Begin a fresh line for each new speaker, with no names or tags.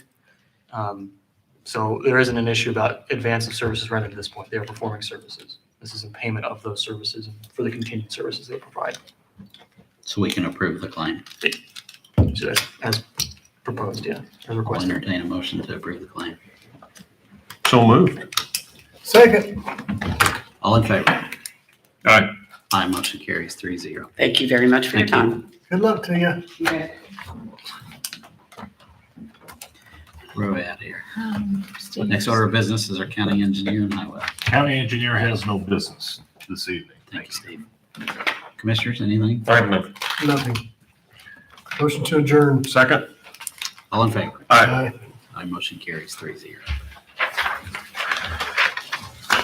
Um, So there isn't an issue about advance of services rendered at this point. They are performing services. This is in payment of those services for the continued services they provide,
So we can approve the client.
so that's as proposed, yeah, as
I'll
requested.
entertain a motion to approve the client.
So moved.
Second.
All in favor?
Aye.
Aye, motion carries three zero.
Thank you very much for your
Thank
time.
Good luck to you.
We're way out of here. Next order of business is our county engineer and highway.
County engineer has no business this evening.
Thank you, Steve. Commissioners, anything?
I have none.
Nothing. Motion to adjourn.
Second?
All in favor?
Aye.
Aye, motion carries three zero.